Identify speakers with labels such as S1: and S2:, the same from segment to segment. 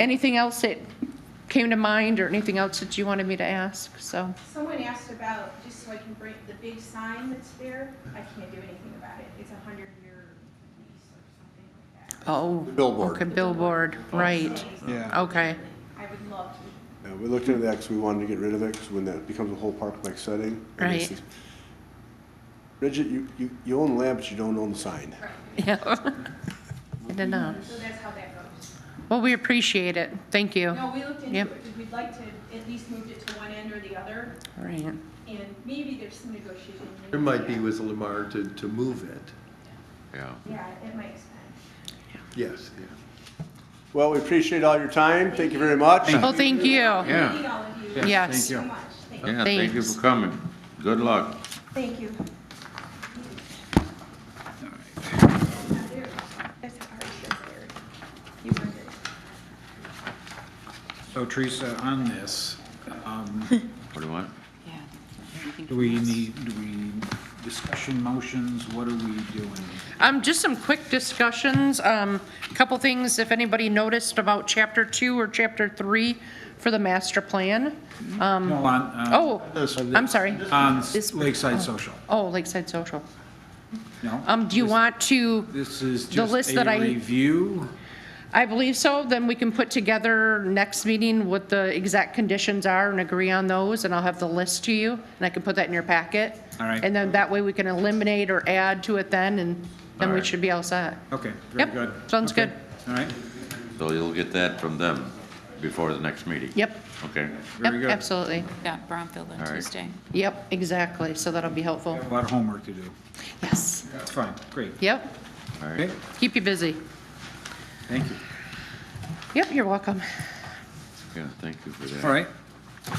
S1: anything else that came to mind or anything else that you wanted me to ask? So,
S2: Someone asked about, just so I can bring, the big sign that's there, I can't do anything about it. It's a hundred year lease or something like
S1: oh.
S2: that.
S3: Billboard.
S1: Okay, billboard, right.
S4: Yeah.
S1: Okay,
S2: I would love to.
S3: Yeah, we looked into that because we wanted to get rid of it, because when that becomes a whole park-like setting. it
S1: Right.
S3: makes it- Bridget, you, you, you own land, but you don't own the sign.
S1: yeah. I don't know.
S2: So that's how that goes.
S1: Well, we appreciate it. Thank you.
S2: No, we looked into
S1: Yep.
S2: it, because we'd like to at least move it to one end or the other,
S1: Right.
S2: and maybe there's some negotiation.
S5: There might be with Lamar to, to move it.
S6: Yeah.
S2: Yeah, it might expand.
S5: Yes, yeah.
S3: Well, we appreciate all your time. Thank you very much.
S1: Well, thank you.
S6: Yeah.
S2: Thank you, all of you.
S1: Oh. Yes.
S2: Thank you so
S4: Thank you.
S2: much. Thank you.
S6: Yeah, thank you
S1: Thanks.
S6: for coming. Good luck.
S2: Thank you. Not there. That's already there. You weren't there.
S4: So Teresa, on this, um,
S6: What do you want?
S4: do we need, do we, discussion motions, what are we doing?
S1: Um, just some quick discussions, um, a couple things, if anybody noticed about chapter two or chapter three for the master plan. Um,
S4: No, on, uh,
S1: oh, I'm sorry.
S4: on
S7: This-
S4: Lakeside Social,
S1: Oh, Lakeside Social.
S4: no?
S1: Um, do you
S4: This-
S1: want to?
S4: This is
S1: the
S4: just
S1: list that I-
S4: a review,
S1: I believe so, then we can put together next meeting what the exact conditions are and agree on those, and I'll have the list to you, and I can put that in your packet.
S4: All right.
S1: And then that way we can eliminate or add to it then, and then
S4: All
S1: we
S4: right.
S1: should be all set.
S4: okay, very
S1: Yep,
S4: good.
S1: sounds
S4: Okay,
S1: good.
S4: All right,
S6: So you'll get that from them before the next meeting?
S1: Yep,
S6: Okay.
S4: very
S1: yep,
S4: good.
S1: absolutely.
S7: Yeah, Bromfield on
S6: All right.
S7: Tuesday.
S1: Yep, exactly, so that'll be helpful.
S4: A lot of homework to do,
S1: Yes.
S4: that's fine, great,
S1: Yep,
S6: All right.
S4: okay,
S1: keep you busy.
S4: thank you,
S1: Yep, you're welcome.
S6: Yeah, thank you for that.
S4: all right. Uh,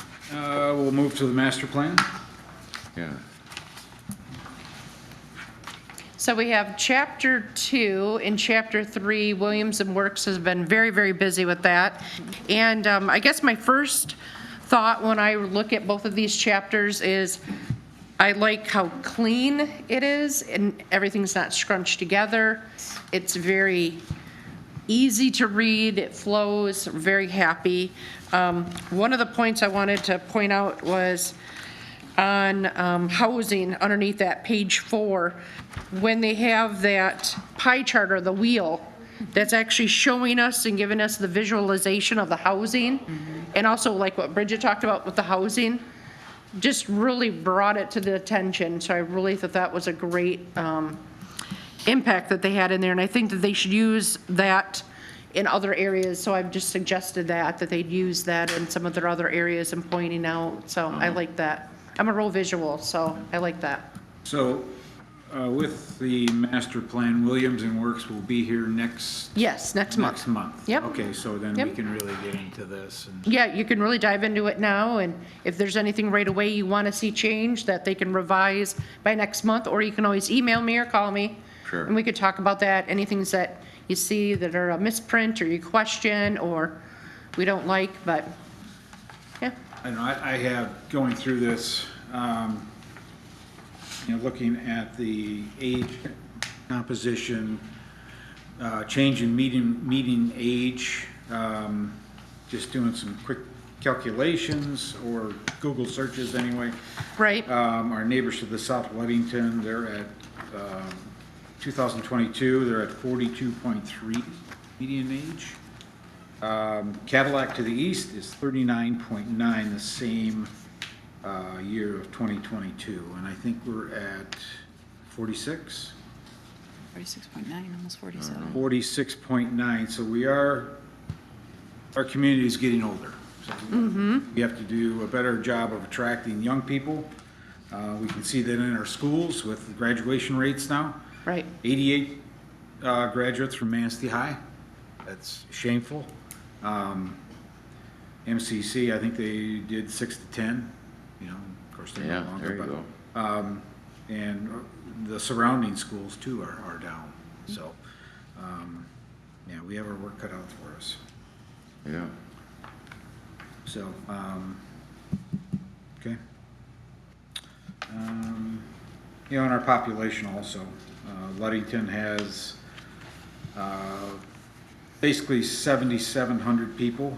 S4: we'll move to the master plan,
S6: Yeah.
S1: So we have chapter two and chapter three, Williams and Works has been very, very busy with that. And um, I guess my first thought when I look at both of these chapters is I like how clean it is and everything's not scrunched together. It's very easy to read, it flows, very happy. Um, One of the points I wanted to point out was on um, housing underneath that page four, when they have that pie chart or the wheel, that's actually showing us and giving us the visualization of the housing, and also like what Bridget talked about with the housing, just really brought it to the attention, so I really thought that was a great um, impact that they had in there, and I think that they should use that in other areas, so I've just suggested that, that they'd use that in some of their other areas and pointing out, so I like that. I'm a real visual, so I like that.
S4: so, uh, with the master plan, Williams and Works will be here next,
S1: Yes, next month.
S4: next month.
S1: Yep.
S4: Okay, so then we
S1: Yep.
S4: can really get into this and.
S1: Yeah, you can really dive into it now, and if there's anything right away you want to see changed that they can revise by next month, or you can always email me or call me.
S6: Sure.
S1: And we could talk about that, anything that you see that are a misprint or you question or we don't like, but, yeah.
S4: I know, I, I have, going through this, um, you know, looking at the age composition, uh, change in meeting, meeting age, um, just doing some quick calculations or Google searches anyway.
S1: Right.
S4: Um, our neighbors to the south, Weddington, they're at, um, two thousand twenty-two, they're at forty-two point three median age. Um, Cadillac to the east is thirty-nine point nine, the same, uh, year of twenty twenty-two, and I think we're at forty-six?
S7: 46.9, almost
S4: Mm-hmm.
S7: 47.
S4: Forty-six point nine, so we are, our community is getting older. So We have to do a better job of attracting young people. Uh, we can see that in our schools with the graduation rates now.
S1: Right.
S4: Eighty-eight, uh, graduates from Manistee High, that's shameful. Um, MCC, I think they did six to ten, you know, of course, they're
S6: Yeah,
S4: no longer,
S6: there
S4: but.
S6: you go.
S4: Um, and the surrounding schools too are, are down, so, um, yeah, we have our work cut out for us,
S6: Yeah.
S4: so, um, okay. Um, You know, and our population also, uh, Luddington has, uh, basically 7,700 people